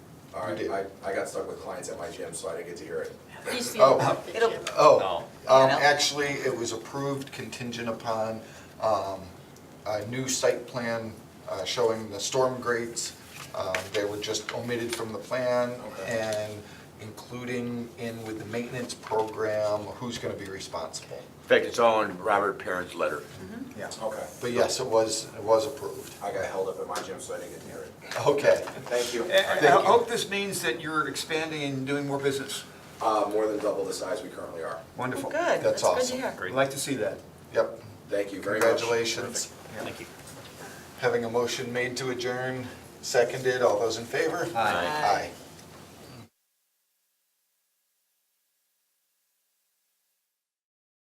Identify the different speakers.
Speaker 1: All
Speaker 2: You
Speaker 1: right,
Speaker 2: did.
Speaker 1: I, I got stuck with clients at my gym, so I didn't get to hear it.
Speaker 3: He's the
Speaker 2: Oh,
Speaker 3: owner of the
Speaker 4: it'll-
Speaker 3: gym.
Speaker 2: Oh,
Speaker 4: No.
Speaker 2: um,
Speaker 4: Yeah, no.
Speaker 2: actually, it was approved contingent upon, um, a new site plan, uh, showing the storm grates. Um, they were just omitted from the plan
Speaker 1: Okay.
Speaker 2: and including in with the maintenance program, who's gonna be responsible.
Speaker 5: In fact, it's all in Robert Perrin's letter.
Speaker 1: Yeah. Okay,
Speaker 2: But yes, it was, it was approved.
Speaker 1: I got held up at my gym, so I didn't get to hear it.
Speaker 2: Okay,
Speaker 1: Thank you. Uh, oh.
Speaker 6: I
Speaker 2: Thank
Speaker 6: I
Speaker 2: you.
Speaker 6: hope this means that you're expanding and doing more business.
Speaker 1: Uh, more than double the size we currently are.
Speaker 6: Wonderful.
Speaker 4: Good,
Speaker 2: That's
Speaker 4: that's good to
Speaker 2: awesome.
Speaker 4: hear.
Speaker 6: I'd like to see that.
Speaker 2: yep,
Speaker 1: Thank you very much.
Speaker 2: congratulations.
Speaker 6: Thank
Speaker 5: you.
Speaker 2: Having a motion made to adjourn, seconded, all those in favor?
Speaker 4: Aye.
Speaker 2: Aye.